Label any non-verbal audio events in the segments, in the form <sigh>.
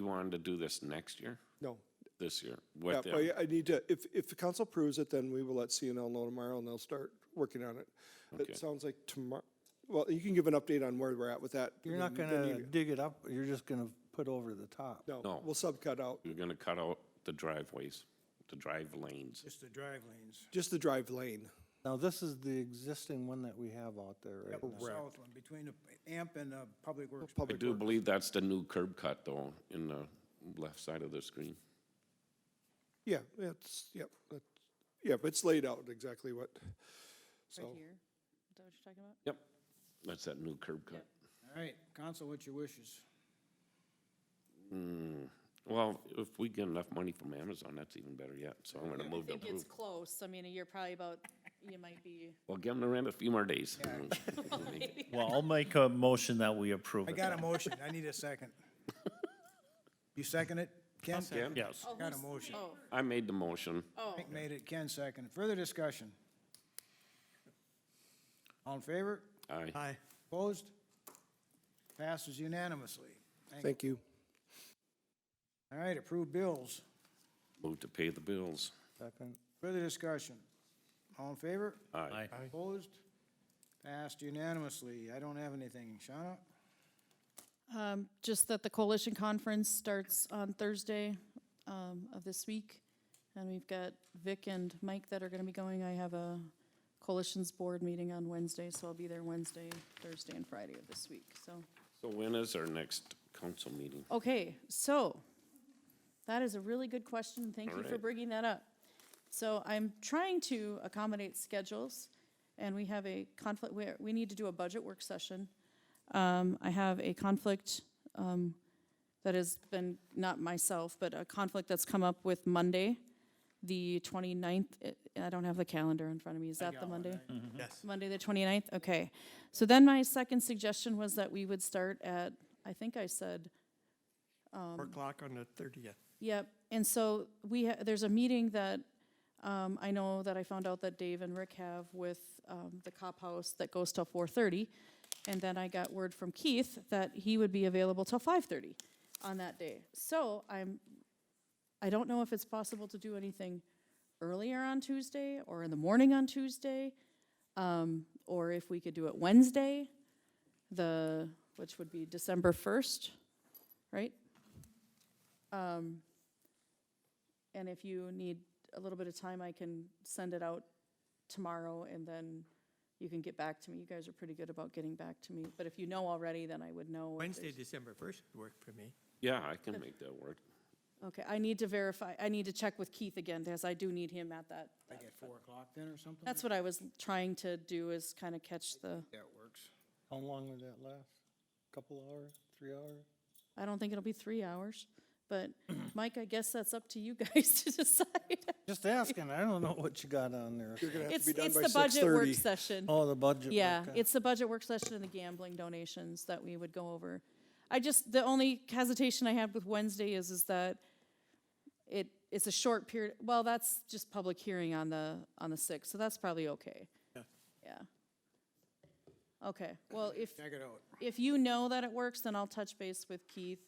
wanted to do this next year, No. this year, Yeah, with but them? I- I need to, if, if the council approves it, then we will let CNL know tomorrow and they'll start working on it. Okay. It sounds like tomorrow, well, you can give an update on where we're at with that. You're and not then- then gonna you- dig it up, you're just gonna put over the top. No, No. we'll subcut out, You're gonna cut out the driveways, the drive lanes. Just the drive lanes, just the drive lane. Now, this is the existing one that we have out there right the now. south one, between the AMP and the Public Works. I do believe that's the new curb cut though, in the left side of the screen. Yeah, that's, yep, that's, yep, it's laid out exactly what, Right so. here? Is that what you're talking about? Yep, that's that new curb cut. All right, council, what's your wishes? Well, if we get enough money from Amazon, that's even better yet, so I'm gonna move I to think it's approve. close. I mean, you're probably about, you might be, Well, give them the rent a few more days. <laughs> Oh, Well, I'll make a motion that we approve I it. got a motion, I need a second. You second <laughs> it? Ken? Ken? Yes. oh, Got a who's- motion. Oh, I made the motion. oh. Frank made it, Ken second. Further discussion? All in favor? Aye. Opposed? Passes unanimously. Thank you. All right, approved bills. Move to pay the bills. Second, Further discussion? All in favor? Aye. Aye. Opposed? Passed unanimously. I don't have anything. Shauna? Um, Just that the coalition conference starts on Thursday um, of this week, and we've got Vic and Mike that are going to be going. I have a coalition's board meeting on Wednesday, so I'll be there Wednesday, Thursday, and Friday of this week, so. So when is our next council meeting? Okay, so, that is a really good question. Thank you for Alright. bringing that up. So I'm trying to accommodate schedules, and we have a conflict, we, we need to do a budget work session. Um, I have a conflict, um, that has been, not myself, but a conflict that's come up with Monday, the 29th. I- I don't have the calendar in front of me. Is that the Monday? Yes. Monday, the 29th? Okay. So then my second suggestion was that we would start at, I think I said, Four o'clock on the thirtieth. Yep, and so we, ha- there's a meeting that, um, I know that I found out that Dave and Rick have with, um, the cop house that goes till four thirty. And then I got word from Keith that he would be available till five thirty on that day. So I'm, I don't know if it's possible to do anything earlier on Tuesday or in the morning on Tuesday. Um, or if we could do it Wednesday, the, which would be December first, right? Um, And if you need a little bit of time, I can send it out tomorrow and then you can get back to me. You guys are pretty good about getting back to me. But if you know already, then I would know. if Wednesday, there's- December first would work for me. Yeah, I can make that work. Okay, I need to verify, I need to check with Keith again because I do need him at that. Like at four o'clock then or something? That's what I was trying to do is kind of catch the, That works. how long would that last? Couple hours, three hours? I don't think it'll be three hours. <clears throat> But Mike, I guess that's up to you guys <laughs> to decide. Just asking, I don't know what you got on there. You're gonna have to It's, be done it's by the budget work 6:30. session. Oh, the budget. Yeah, okay. it's the budget work uh, session and the gambling donations that we would go over. I just, the only hesitation I have with Wednesday is, is that it, it's a short period, well, that's just public hearing on the, on the sixth, so that's probably okay. Yeah. Okay, well, if, Check it out. if you know that it works, then I'll touch base with Keith.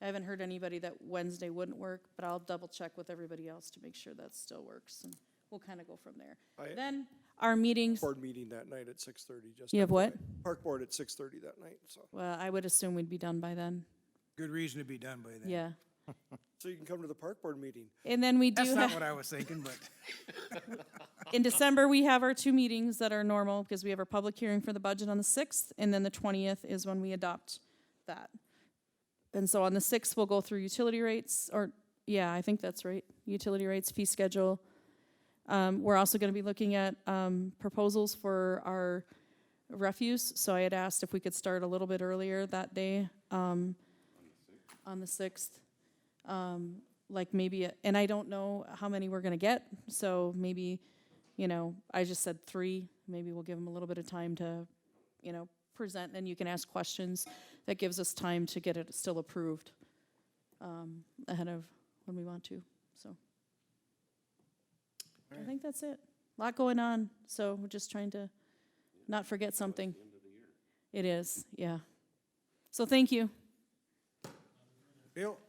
I haven't heard anybody that Wednesday wouldn't work, but I'll double check with everybody else to make sure that still works, and we'll kind of go from there. I- Then, our meetings, Board meeting that night at six thirty, just. you have what? FYI. Park board at six thirty that night, so. Well, I would assume we'd be done by then. Good reason to be done by then. Yeah. So you can come to the park board meeting. And then we That's do not have, what I was thinking, but in December, we have our two meetings that are normal because we have our public hearing for the budget on the 6th, and then the 20th is when we adopt that. And so on the 6th, we'll go through utility rates, or, yeah, I think that's right, utility rates, fee schedule. Um, We're also going to be looking at um, proposals for our refuse, so I had asked if we could start a little bit earlier that day. um, On the 6th. um, Like maybe, and I don't know how many we're going to get, so maybe, you know, I just said three. Maybe we'll give them a little bit of time to, you know, present, and you can ask questions. That gives us time to get it still approved um, ahead of when we want to, so. I think that's it. Lot going on, so we're just trying to not forget something. It is, yeah. So thank you. Bill,